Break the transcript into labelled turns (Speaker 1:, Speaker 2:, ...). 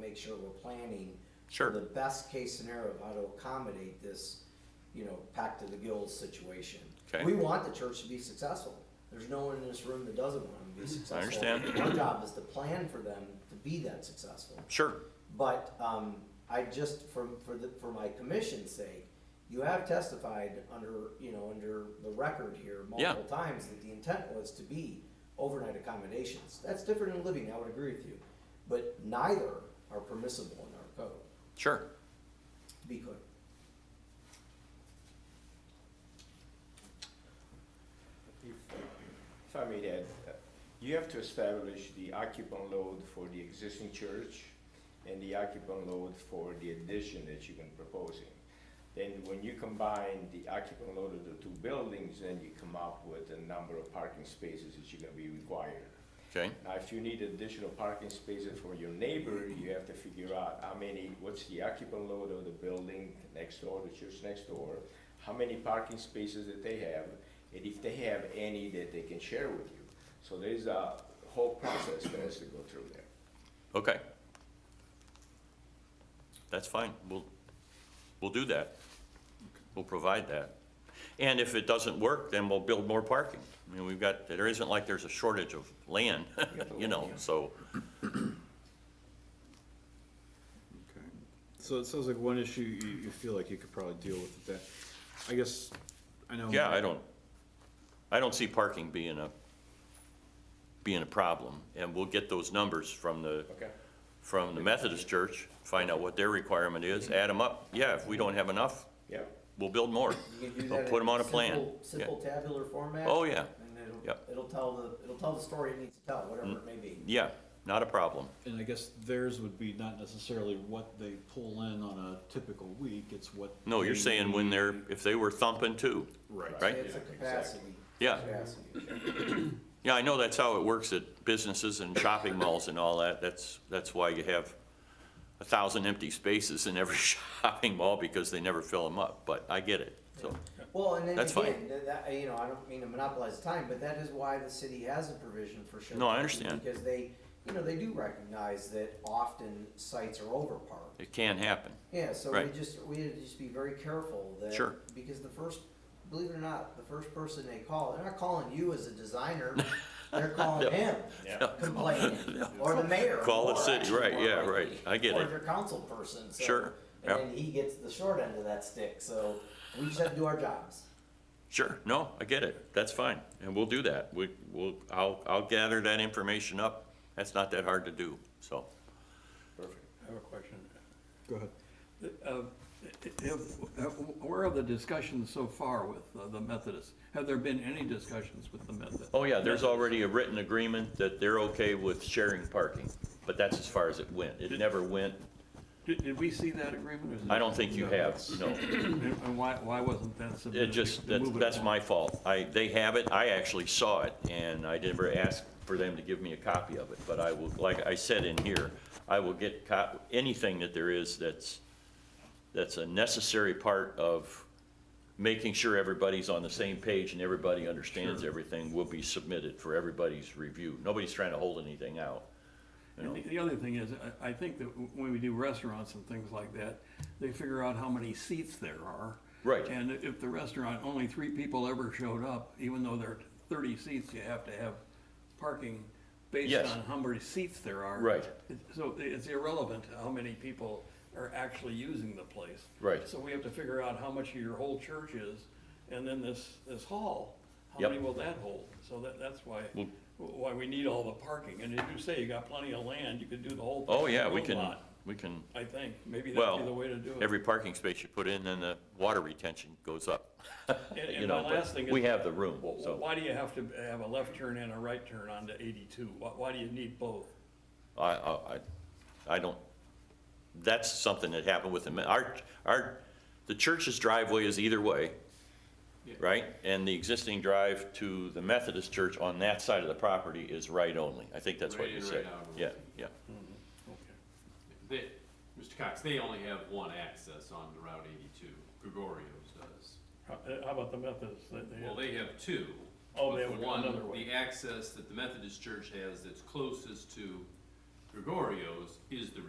Speaker 1: make sure we're planning.
Speaker 2: Sure.
Speaker 1: The best case scenario of how to accommodate this, you know, packed to the gills situation.
Speaker 2: Okay.
Speaker 1: We want the church to be successful. There's no one in this room that doesn't want them to be successful.
Speaker 2: Mm-hmm. understand.
Speaker 1: Our job is to plan for them to be that successful.
Speaker 2: Sure.
Speaker 1: But um, I just, for, for the, for my commission's sake, you have testified under, you know, under the record here
Speaker 2: Yeah.
Speaker 1: multiple times that the intent was to be overnight accommodations. That's different in living, I would agree with you, but neither are permissible in our code,
Speaker 2: Sure.
Speaker 1: to be clear.
Speaker 3: If if I may add, uh, you have to establish the occupant load for the existing church and the occupant load for the addition that you've been proposing. Then when you combine the occupant load of the two buildings, then you come up with the number of parking spaces that you're gonna be required.
Speaker 2: Okay.
Speaker 3: Now, if you need additional parking spaces for your neighbor, you have to figure out how many, what's the occupant load of the building next door, the church next door, how many parking spaces that they have, and if they have any that they can share with you. So there's a whole process that has to go through there.
Speaker 2: Okay. That's fine. We'll, we'll do that. We'll provide that. And if it doesn't work, then we'll build more parking. I mean, we've got, there isn't like there's a shortage of land, you know, so,
Speaker 4: Okay, so it sounds like one issue you, you feel like you could probably deal with that, I guess, I know.
Speaker 2: yeah, I don't, I don't see parking being a, being a problem. And we'll get those numbers from the,
Speaker 3: Okay.
Speaker 2: from the Methodist Church, find out what their requirement is, add them up. Yeah, if we don't have enough,
Speaker 3: Yeah.
Speaker 2: we'll build more.
Speaker 1: You can do
Speaker 2: We'll
Speaker 1: that
Speaker 2: put
Speaker 1: in
Speaker 2: them on a plan.
Speaker 1: simple-
Speaker 2: Yeah.
Speaker 1: Simple tabular format.
Speaker 2: Oh, yeah.
Speaker 1: And it'll,
Speaker 2: Yep. Mm.
Speaker 1: it'll tell the, it'll tell the story it needs to tell, whatever it may be.
Speaker 2: Yeah, not a problem.
Speaker 4: And I guess theirs would be not necessarily what they pull in on a typical week, it's what.
Speaker 2: No, you're
Speaker 4: they
Speaker 2: saying when they're, if they were thumping too.
Speaker 4: Right.
Speaker 2: Right.
Speaker 1: It's a capacity.
Speaker 2: Yeah.
Speaker 1: Capacity.
Speaker 2: Yeah, I know that's how it works at businesses and shopping malls and all that. That's, that's why you have a thousand empty spaces in every shopping mall because they never fill them up, but I get it, so.
Speaker 1: Well, and then
Speaker 2: That's fine.
Speaker 1: again, that, that, you know, I don't mean to monopolize time, but that is why the city has a provision for shared.
Speaker 2: No, I
Speaker 1: parking,
Speaker 2: understand.
Speaker 1: Because they, you know, they do recognize that often sites are overparked.
Speaker 2: It can happen.
Speaker 1: Yeah, so we
Speaker 2: Right.
Speaker 1: just, we had to just be very careful that.
Speaker 2: Sure.
Speaker 1: Because the first, believe it or not, the first person they call, they're not calling you as a designer, they're calling him complaining, or the mayor.
Speaker 2: Call the
Speaker 1: or
Speaker 2: city,
Speaker 1: actually
Speaker 2: right,
Speaker 1: more
Speaker 2: yeah, right.
Speaker 1: likely,
Speaker 2: I get
Speaker 1: Or
Speaker 2: it.
Speaker 1: your council person, so.
Speaker 2: Sure, yep.
Speaker 1: And then he gets the short end of that stick, so we just have to do our jobs.
Speaker 2: Sure, no, I get it. That's fine, and we'll do that. We, we'll, I'll, I'll gather that information up. That's not that hard to do, so.
Speaker 3: Perfect.
Speaker 5: I have a question.
Speaker 4: Go ahead.
Speaker 5: Uh, Have, have- where are the discussions so far with uh, the Methodists? Have there been any discussions with the Methodists?
Speaker 2: Oh, yeah, there's already a written agreement that they're okay with sharing parking, but that's as far as it went. It never went,
Speaker 5: Did, did we see that agreement? or is it-
Speaker 2: I don't think you have, no.
Speaker 5: And and why, why wasn't that submitted?
Speaker 2: It just,
Speaker 5: to
Speaker 2: that's,
Speaker 5: move it
Speaker 2: that's
Speaker 5: along?
Speaker 2: my fault. I, they have it, I actually saw it, and I never asked for them to give me a copy of it, but I will, like I said in here, I will get co- anything that there is that's, that's a necessary part of making sure everybody's on the same page and everybody understands everything will be submitted for everybody's review. Nobody's trying to hold anything out. you know.
Speaker 5: And the- the other thing is, I, I think that w- when we do restaurants and things like that, they figure out how many seats there are.
Speaker 2: Right.
Speaker 5: And if the restaurant, only three people ever showed up, even though there are thirty seats, you have to have parking based
Speaker 2: Yes.
Speaker 5: on how many seats there are.
Speaker 2: Right.
Speaker 5: It- So it's irrelevant how many people are actually using the place.
Speaker 2: Right.
Speaker 5: So we have to figure out how much your whole church is, and then this, this hall, how
Speaker 2: Yep. Mm.
Speaker 5: many will that hold? So that, that's why,
Speaker 2: Well-
Speaker 5: why we need all the parking, and if you say you got plenty of land, you could do the whole thing.
Speaker 2: Oh,
Speaker 5: in
Speaker 2: yeah,
Speaker 5: one
Speaker 2: we can,
Speaker 5: lot,
Speaker 2: we can,
Speaker 5: I think, maybe that'd be the
Speaker 2: well,
Speaker 5: way to do it.
Speaker 2: every parking space you put in, then the water retention goes up.
Speaker 5: And-
Speaker 2: you
Speaker 5: And
Speaker 2: know,
Speaker 5: my
Speaker 2: but
Speaker 5: last thing is.
Speaker 2: we have the room,
Speaker 5: wh- wh-
Speaker 2: so.
Speaker 5: Why do you have to have a left turn and a right turn onto eighty-two? Why, why do you need both?
Speaker 2: I, I, I- I don't, that's something that happened with them. Our, our, the church's driveway is either way, right? And the existing drive to the Methodist church on that side of the property is right only. I think that's what
Speaker 6: Right
Speaker 2: you
Speaker 6: in,
Speaker 2: said.
Speaker 6: right out.
Speaker 2: Yeah, yeah.
Speaker 6: They, Mr. Cox, they only have one access on Route eighty-two, Gregorio's does.
Speaker 5: How, uh, how about the Methodists? They- they-
Speaker 6: Well, they have two.
Speaker 5: Oh,
Speaker 6: but
Speaker 5: they
Speaker 6: the
Speaker 5: have
Speaker 6: one-
Speaker 5: another way.
Speaker 6: The access that the Methodist Church has that's closest to Gregorio's is the